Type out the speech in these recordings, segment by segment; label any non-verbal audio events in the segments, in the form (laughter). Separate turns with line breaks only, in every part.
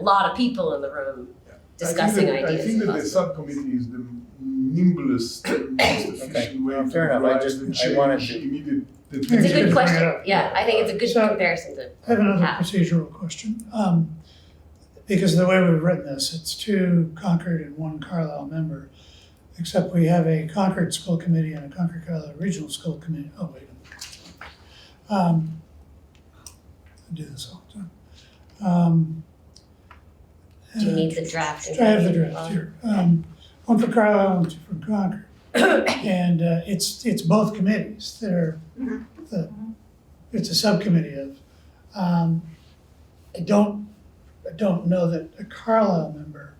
a lot of people in the room discussing
I think that-
ideas.
I think that
about
the
it.
subcommittee is the nimblest, most efficient way
Fair
to
enough. I
drive
just-
the
I
change
wanted to-
immediate- the
It's
It's
a
change.
good
Yeah.
question,
Yeah.
yeah, I think it's a good
So-
comparison to,
I have another
Yeah.
procedural question. Um, because the way we've written this, it's two Concord and one Carlisle member, except we have a Concord School Committee and a Concord Carlisle Regional School Committee. Oh, wait. Um, I do this all the time. Um,
do you
uh,
need the draft? in
I have the
front of you?
draft here. Um, one for Carlisle and two from Concord.
(coughs)
And uh, it's, it's both committees that are,
Mm-hmm.
the, it's a subcommittee of. um, I don't, I don't know that a Carlisle member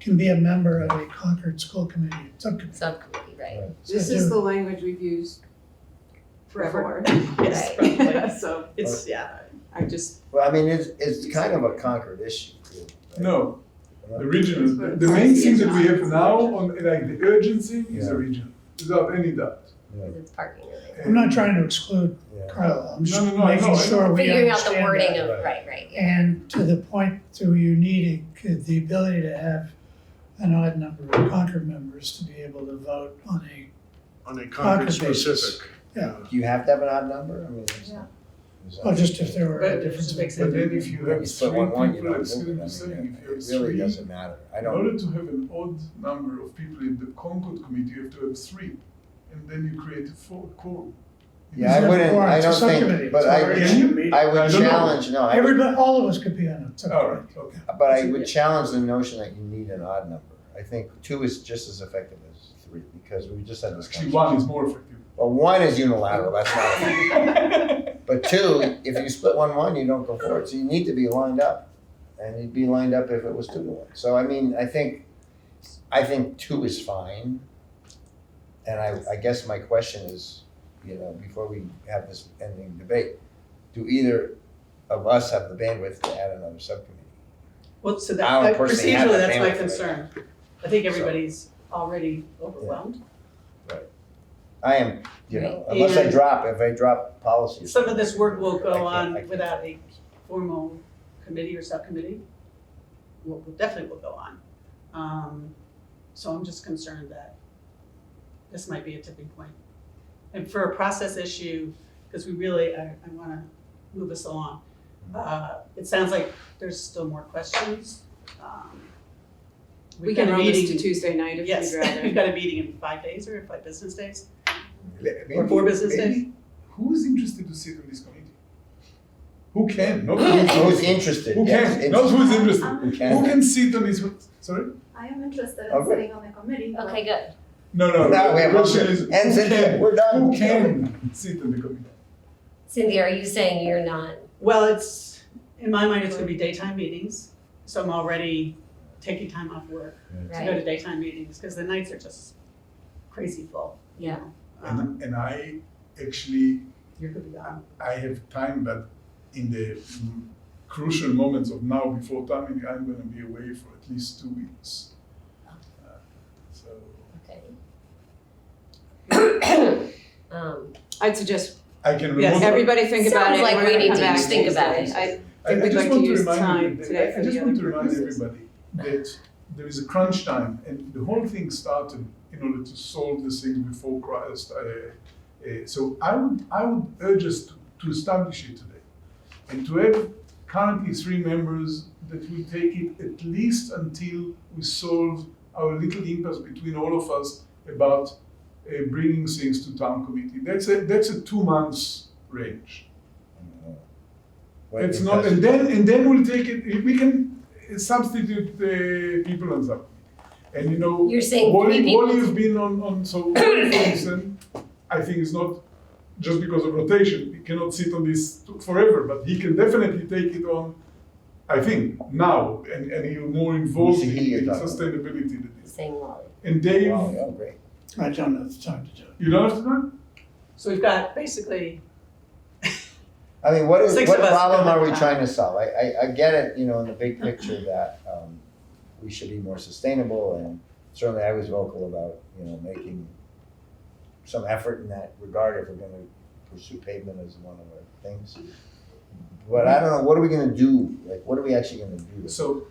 can be a member of a Concord School Committee subcommittee.
Subcommittee, right,
This
So
is
they're-
the language we've used forever. (laughs)
Yes,
So it's, yeah, I (laughs) just,
Well, I mean, it's, it's kind of a Concord issue. too, right?
No, the regional, the- the main thing that we have now on, like, the urgency is the
Yeah.
regional, without any doubt.
because it's parking related.
I'm not trying to exclude
Yeah.
Carlisle, I'm just
No, no, no, I know, I
making
know.
sure we understand
Figuring out the wording
that.
of,
Right.
right, right, yeah.
And to the point to you need a- the ability to have an odd number of Concord members to be able to vote on a
on a
Market
concrete
basis.
specific.
Yeah.
Do you have to have an odd number? I mean, is that- is that-
Well, Oh, just if there were
But
a
it
difference.
just makes
But
between-
then if you
When you
have three
split one, one, you
people,
don't
it's
move
gonna
it.
be
I
saying,
mean,
if
it
you have
really
three,
doesn't matter. I
in
don't,
order to have an odd number of people in the Concord committee, you have to have three, and then you create a four quorum.
yeah, I wouldn't,
Or
I
it's a
don't
subcommittee.
think, but I
Can
would,
you?
I
I don't
would
know.
challenge, no, I would,
Everybody, all of us could be on it.
All right, okay.
but I would challenge the notion that you need an odd number. I think two is just as effective as three, because we just had this
Actually, one is
conversation.
more effective.
Well, one is unilateral, that's not
(laughs)
effective. But two, if you split one one, you don't go for it. So you need to be lined up, and you'd be lined up if it was two to one. So I mean, I think, I think two is fine. And I, I guess my question is, you know, before we have this ending debate, do either of us have the bandwidth to add another subcommittee?
well, so
I
that,
don't
that-
personally have
procedurally,
that
that's my
bandwidth.
concern. I think
So-
everybody's already overwhelmed.
I am, you know, unless I
Yeah.
drop, if I drop policy.
Some of this work will
I
go
can't- I
on
can't.
without a formal committee or subcommittee. Will, will- definitely will go on. Um, so I'm just concerned that this might be a tipping point. And for a process issue, because we really, I, I wanna move us along. Uh, it sounds like there's still more questions. Um, we've
We can
got a
roll this to
meeting-
Tuesday night if
Yes, (laughs)
you'd rather.
we've got a meeting in five days or five business days.
Maybe-
four business days?
maybe Who is interested to sit on this committee? Who
(clears throat)
can? Not who
Who's
is
interested?
Who
yes,
can? Not who is interested.
Who
Who
can?
can sit on this? one? Sorry.
I am interested in
Okay.
sitting on the committee. but-
Okay, good.
No, no.
Now we
the
have
question
hundred.
is,
And
who
since
can?
we're done.
Who can sit on the committee?
Cindy, are you saying you're not,
Well, it's, in my mind, it's gonna be daytime meetings, so I'm already taking time off work to go
right?
to daytime meetings, because the nights are just crazy full. you
Yeah.
know.
Uh-huh.
Um,
And, and I actually
You're gonna be gone.
I have time, but in the mm, crucial moments of now before timing, I'm going to be away for at least two weeks. Uh, so
Okay. (coughs) Um,
I'd suggest
I can
Yes,
remotely.
everybody think about it.
Sounds like
We're
we
gonna
need
come
to
back
each think about
Tuesday.
it.
I-
I,
We'd
I just
like to
want to
use
remind,
time
everybody-
today
I
for
just
the
want
other
to remind
purposes.
everybody that there is a crunch time, and the whole thing started in order to solve this thing before Christ. Uh, uh, so I would I would urge us to, to establish it today, and to have currently three members that will take it at least until we solve our little impasse between all of us about uh, bringing things to town committee. That's a that's a two months range.
What
It's not,
because-
and then, and then we'll take it, we can substitute the people on subcommittee. And you know.
You're saying three people.
Wally has been on, on,
(coughs)
so Wally, for instance, I think it's not just because of rotation, he cannot sit on this forever, but he can definitely take it on, I think, now, and, and he'll more involved in
Who's he you're
in
talking about?
sustainability than this.
saying Wally.
And Dave,
Wow, Oh, yeah, great.
I don't know the time to do it.
you don't have to,
So we've got basically,
I mean, what is,
Six
what
of us
problem
go
are we
down.
trying to solve? I, I, I get it, you know, in the big picture that, um, we should be more sustainable and certainly I was vocal about, you know, making some effort in that regard if we're gonna pursue pavement as one of our things. But I don't know, what are we gonna do? Like, what are we actually gonna do?
so